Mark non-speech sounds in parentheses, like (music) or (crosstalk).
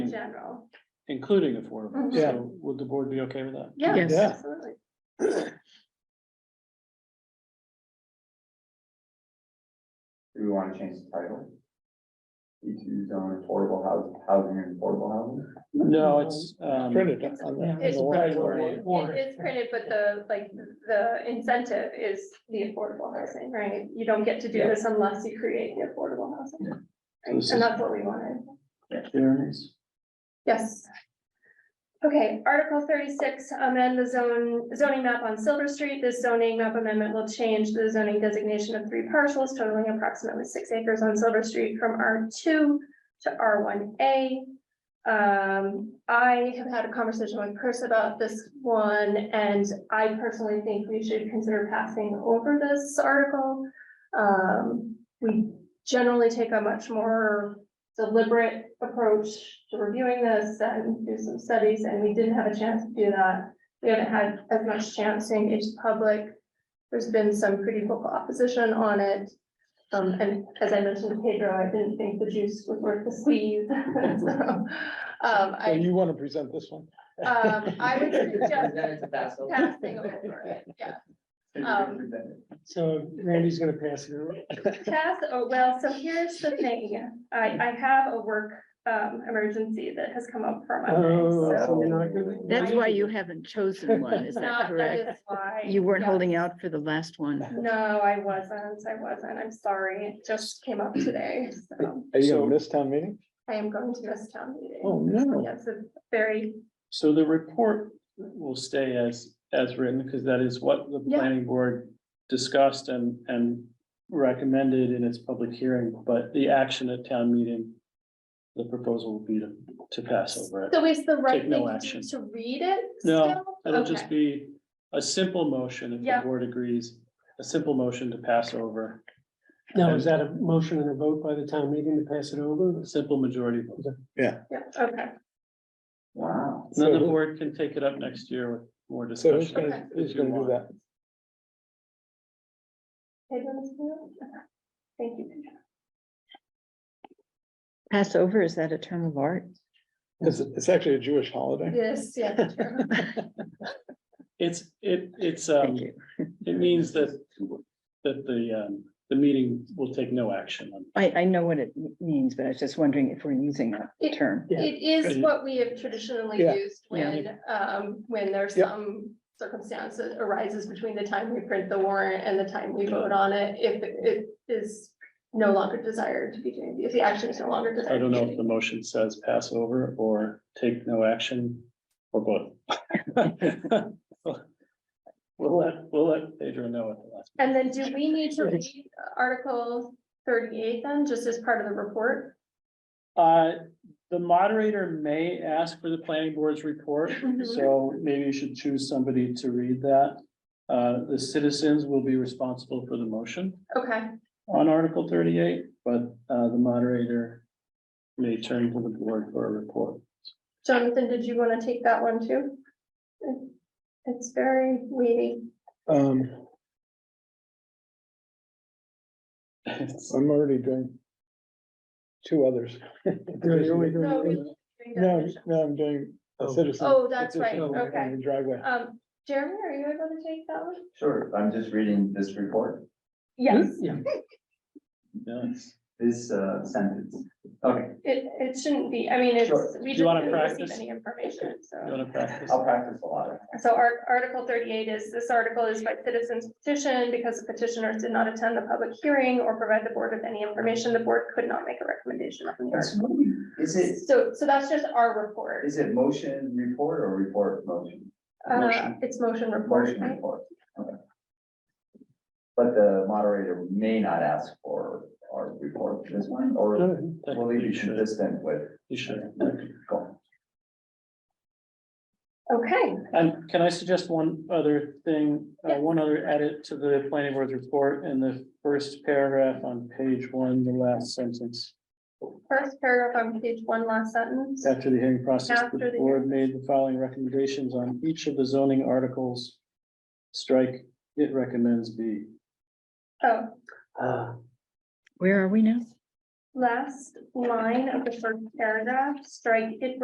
in Including, general. including affordable. Mhm. Yeah. So would the board be okay with that? Yeah, Yes. Yeah. absolutely. Do we wanna change the title? E two zone affordable housing, housing and affordable housing? No, it's, um, Printed on the- on It's the printed. warrant. It is printed, but the, like, the incentive is the affordable housing, right? You don't get to do this unless you create the affordable housing. Yeah. Right, This And is- that's what we wanted. Jeremy's. Yes. Okay, Article thirty-six, amend the zone, zoning map on Silver Street. This zoning map amendment will change the zoning designation of three parcels totaling approximately six acres on Silver Street from R two to R one A. Um, I have had a conversation with Chris about this one, and I personally think we should consider passing over this article. Um, we generally take a much more deliberate approach to reviewing this and do some studies, and we didn't have a chance to do that. We haven't had as much chance to engage the public. There's been some pretty vocal opposition on it. Um, and as I mentioned to Pedro, I didn't think the juice was worth the squeeze. (laughs) So, Um, So I, you want to present this one? um, I would suggest That's all. passing over it, yeah. Um, So Randy's gonna pass it around. Pass, oh, well, so here's the thing, I, I have a work, um, emergency that has come up for my. Oh, so- so we're not gonna- That's why you haven't (laughs) chosen one, is that Not, that correct? is why. You weren't yeah. holding out for the last one. No, I wasn't, I wasn't, I'm sorry, it just came up today, so Are you So- gonna miss town meeting? I am going to this town meeting. Oh, no. That's a very, So the report will stay as, as written, because that is what the Yeah. planning board discussed and, and recommended in its public hearing, but the action at town meeting, the proposal will be to, to pass over it. so is the right Take no thing action. to- to read it No, still? It'll just Okay. be a simple motion, if Yeah. the board agrees, a simple motion to pass over, Now, is that a motion and a vote by the town meeting to pass it over? a simple majority vote. Yeah, okay, Wow. Then the So who- board can take it up next year with more So who's discussion. gonna, who's if you gonna do want. that? Pedro, Ms. Moore? Okay. thank you. Pedro. Passover, is that a term of art? It's, it's actually a Jewish holiday. Yes, yeah, true. It's, it, it's, um, Thank you. it means that, that the, um, the meeting will take no action on. I, I know what it means, but I was just wondering if we're using It- that term. Yeah. It is Good. what we have traditionally Yeah. used when, um, when there's Yep. some circumstance that arises between the time we print the warrant and the time we vote on it, if it is no longer desired to be doing, if the action is no longer desired. I don't know to if the motion says pass over or take no action or both. (laughs) We'll let, we'll let Pedro know at the last. And then do we need to read Article thirty-eight then, just as part of the report? Uh, the moderator may ask for the planning board's report, so maybe you should choose somebody to read that. Uh, the citizens will be responsible for the motion Okay, on Article thirty-eight, but, uh, the moderator may turn to the board for a report. Jonathan, did you want to take that one too? It's very weighty. Um, I'm already doing two others. (laughs) No, No, really, doing that. no, I'm doing a Oh. citizen. Oh, that's right, petition on okay. the Driveway. Um, Jeremy, are you able to take that one? Sure, I'm just reading this report, Hmm? Yes, Yeah. Yes. this uh sentence. Okay, it, it shouldn't be, I mean, it's, Sure. we Do you didn't wanna really receive practice? any information, You so. wanna practice? I'll practice a lot. So our, article thirty-eight is, this article is by citizens petition, because the petitioners did not attend the public hearing or provide the board with any information, the board could not make a recommendation on the That's article. really, is it, So, so that's just our report, is it motion report or report motion? uh, motion. it's motion report, Motion right? report, okay. But the moderator may not ask for our report this one, or Good. will it You be should, consistent with? you should. Cool. Okay, And can I suggest one other thing, uh, Yeah. one other edit to the planning board's report in the first paragraph on page one, the last sentence? first paragraph on page one, last sentence, After the hearing process, After the the board made the following recommendations on each of the zoning articles. Strike, it recommends B. oh, Where are we now? last line of the first paragraph, strike it